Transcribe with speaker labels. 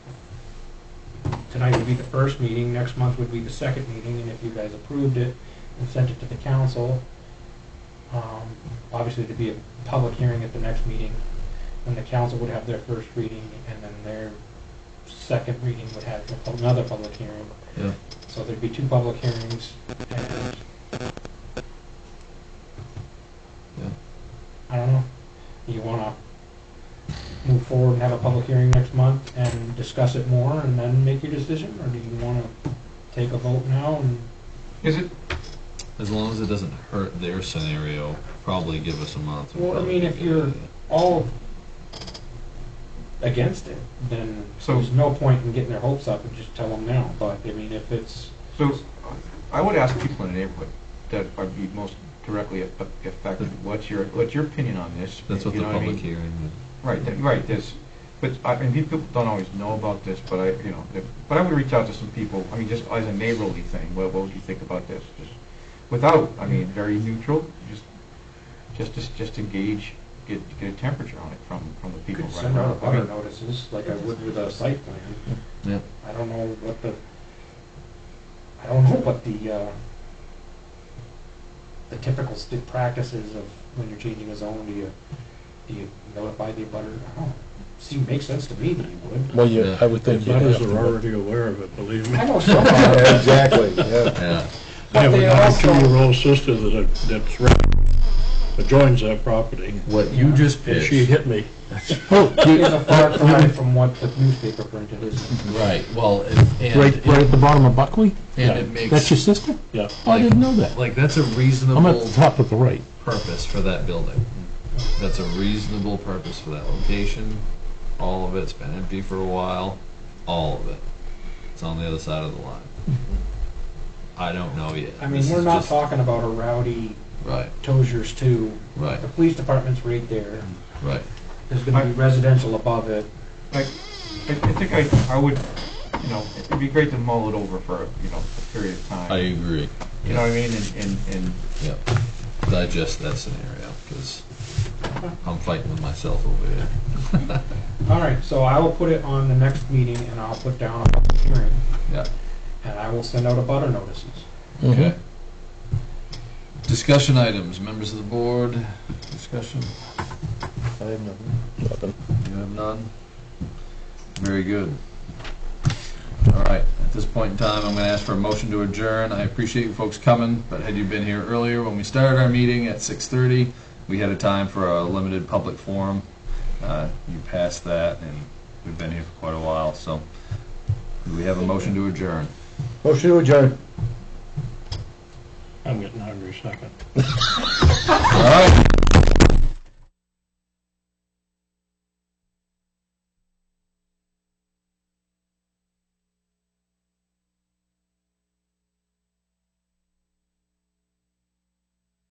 Speaker 1: tonight would be the first meeting, next month would be the second meeting, and if you guys approved it and sent it to the council, um, obviously there'd be a public hearing at the next meeting, when the council would have their first reading, and then their second reading would have another public hearing.
Speaker 2: Yeah.
Speaker 1: So there'd be two public hearings, and
Speaker 2: Yeah.
Speaker 1: I don't know, you wanna move forward and have a public hearing next month and discuss it more and then make your decision, or do you wanna take a vote now and,
Speaker 3: Is it,
Speaker 2: As long as it doesn't hurt their scenario, probably give us a month. would
Speaker 1: Well, I
Speaker 2: probably
Speaker 1: mean,
Speaker 2: be a
Speaker 1: if
Speaker 2: good
Speaker 1: you're-
Speaker 2: idea.
Speaker 1: all against it, then
Speaker 3: So-
Speaker 1: there's no point in getting their hopes up and just tell them now, but, I mean, if it's,
Speaker 3: so, I would ask people in the neighborhood that are be most directly a- a- affected, what's your, what's your opinion on this?
Speaker 2: That's what
Speaker 3: You
Speaker 2: the
Speaker 3: know I
Speaker 2: public
Speaker 3: mean?
Speaker 2: hearing
Speaker 3: Right, that- right, this, but, I, and people don't always know about this, but I, you know, if- but I would reach out to some people, I mean, just as a neighborly thing, what, what would you think about this? Just Without, I mean, very neutral, just, just, just, just engage, get, get a temperature on it from, from the
Speaker 1: you
Speaker 3: people
Speaker 1: could
Speaker 3: right
Speaker 1: send out
Speaker 3: around. I
Speaker 1: abutter
Speaker 3: mean,
Speaker 1: notices, like I would with a site plan.
Speaker 2: would, yeah.
Speaker 1: I don't know what the, I don't know what the, uh, the typical sti- practices of when you're changing a zone, do you, do you notify the abutter? I don't, know. seem, makes sense to me that you would.
Speaker 4: Well, you,
Speaker 2: Yeah.
Speaker 4: Oh, I would
Speaker 5: The
Speaker 4: think you'd have
Speaker 5: butters
Speaker 4: to.
Speaker 5: are already aware of it, believe me.
Speaker 1: I know some are,
Speaker 4: Yeah, Exactly, yeah.
Speaker 2: Yeah,
Speaker 5: I
Speaker 1: but
Speaker 5: have
Speaker 1: they
Speaker 5: a
Speaker 1: also,
Speaker 5: two-year-old sister that, uh, that's, right- that joins that property,
Speaker 2: what you just
Speaker 5: and she
Speaker 2: pitched,
Speaker 5: hit me.
Speaker 2: Oh,
Speaker 1: is a far cry from what the newspaper printed is.
Speaker 2: right, well, and,
Speaker 4: Right, right
Speaker 2: and,
Speaker 4: at the bottom of Buckley?
Speaker 2: and it
Speaker 4: That's your
Speaker 2: makes,
Speaker 4: sister?
Speaker 5: Yeah.
Speaker 4: Oh, I didn't know that.
Speaker 2: like, that's a
Speaker 4: I'm at
Speaker 2: reasonable
Speaker 4: the top of the right.
Speaker 2: purpose for that building. That's a reasonable purpose for that location, all of it's been empty for a while, all of it. It's on the other side of the line.
Speaker 4: Hmm.
Speaker 2: I don't know yet.
Speaker 1: I mean,
Speaker 2: This
Speaker 1: we're
Speaker 2: is
Speaker 1: not
Speaker 2: just-
Speaker 1: talking about a rowdy
Speaker 2: Right,
Speaker 1: Tozier's too.
Speaker 2: right,
Speaker 1: The police department's right there.
Speaker 2: right.
Speaker 1: There's gonna be residential above it.
Speaker 3: I, I I think I, I would, you know, it'd be great to mull it over for, you know, a period of time.
Speaker 2: I agree.
Speaker 3: You know what I mean, and, and, and,
Speaker 2: Yep. Digest that scenario because I'm fighting with myself over here.
Speaker 1: All right, so I will put it on the next meeting and I'll put down a public hearing
Speaker 2: Yeah.
Speaker 1: and I will send out a butter notices.
Speaker 2: Okay. Discussion items, members of the board, discussion?
Speaker 4: I have nothing. Nothing.
Speaker 2: You have none? Very good. All right, at this point in time, I'm gonna ask for a motion to adjourn. I appreciate you folks coming, but had you been here earlier when we started our meeting at six thirty, we had a time for a limited public forum. Uh, You passed that, and we've been here for quite a while, so do we have a motion to adjourn?
Speaker 4: Motion to adjourn.
Speaker 5: I'm getting hungry second.
Speaker 2: All right,